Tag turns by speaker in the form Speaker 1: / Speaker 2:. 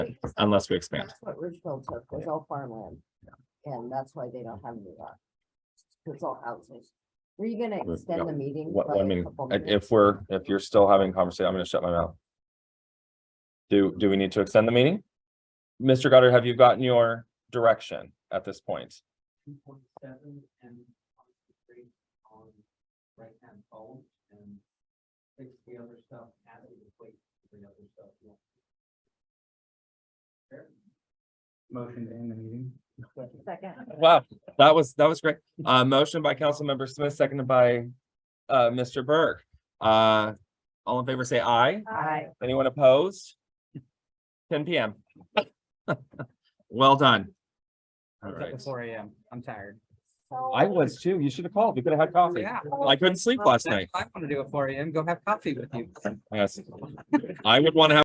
Speaker 1: unless we expand.
Speaker 2: That's what Ridgefield took, was all farmland, and that's why they don't have any lot. It's all houses. Were you gonna
Speaker 1: But,
Speaker 2: extend
Speaker 1: no,
Speaker 2: the meeting?
Speaker 1: What,
Speaker 2: by
Speaker 1: I
Speaker 2: a
Speaker 1: mean,
Speaker 2: couple
Speaker 1: i-
Speaker 2: minutes?
Speaker 1: if we're, if you're still having conversation, I'm gonna shut my mouth. Do, do we need to extend the meeting? Mr. Goddard, have you gotten your direction at this point?
Speaker 3: two point seven and concentrate on right hand phone and fix the other stuff, add it, wait for the other stuff. Motion to end the meeting.
Speaker 2: Second.
Speaker 1: Wow, that was, that was great. Uh, motion by Councilmember Smith, seconded by, uh, Mr. Burke. Uh, all in favor, say aye.
Speaker 2: Aye.
Speaker 1: Anyone opposed? Ten PM. Well done. All right.
Speaker 3: Four AM, I'm tired.
Speaker 1: I was too. You should have called. We could have had coffee.
Speaker 3: Yeah.
Speaker 1: I couldn't sleep last night.
Speaker 3: I wanna do it four AM, go have coffee with you.
Speaker 1: Yes. I would want to have